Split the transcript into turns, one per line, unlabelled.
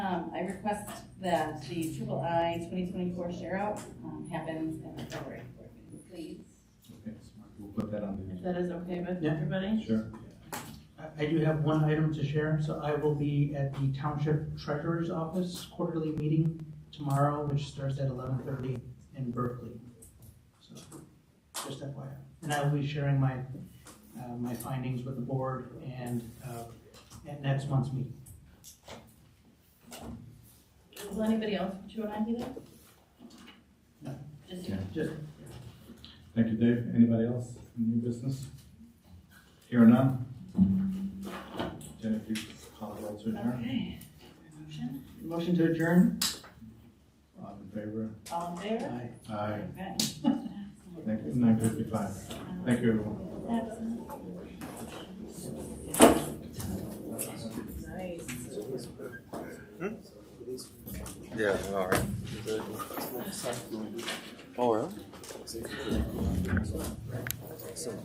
Um, I request that the triple I twenty twenty-four share out, um, happens in the February board meeting, please.
Okay, so we'll put that on the
If that is okay with
Yeah.
everybody?
Sure.
I- I do have one item to share, so I will be at the Township Treasurer's Office quarterly meeting tomorrow, which starts at eleven thirty in Berkeley. So, just FYI, and I will be sharing my, uh, my findings with the board and, uh, at next month's meeting.
Will anybody else, do you want to do that?
Just,
Yeah.
Just,
Thank you, Dave. Anybody else in new business? Here or none? Jennifer, you call the roll to adjourn.
okay. Motion,
motion to adjourn?
All in favor?
all in favor?
Aye.
Aye.
Okay.
Thank you. Nine fifty-five. Thank you, everyone.
Nice.
Yeah, all right. Oh, really?